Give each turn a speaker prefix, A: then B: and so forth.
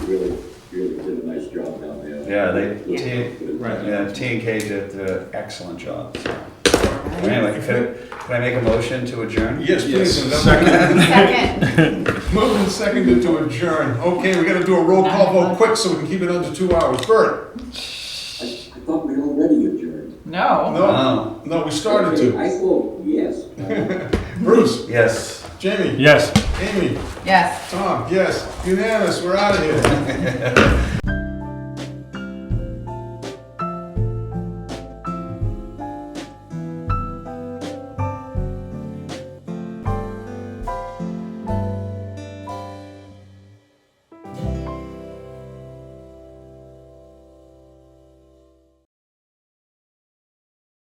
A: really, really did a nice job down there.
B: Yeah, they,
A: With-
B: T,
A: with-
C: right.
B: yeah, T and K did an excellent job. so. Anyway, could, could I make a motion to adjourn?
C: Yes, please. and
D: Yes.
C: then
E: Second.
C: we- Moved and seconded to adjourn. Okay, we gotta do a roll call vote quick so we can keep it under two hours. Bert?
A: I I thought we already adjourned.
E: No.
C: No,
B: No.
C: no, we started to.
A: I thought, yes.
C: Bruce?
B: Yes.
C: Jamie?
D: Yes.
C: Amy?
E: Yes.
C: Tom? Yes. Unanimous, we're out of here.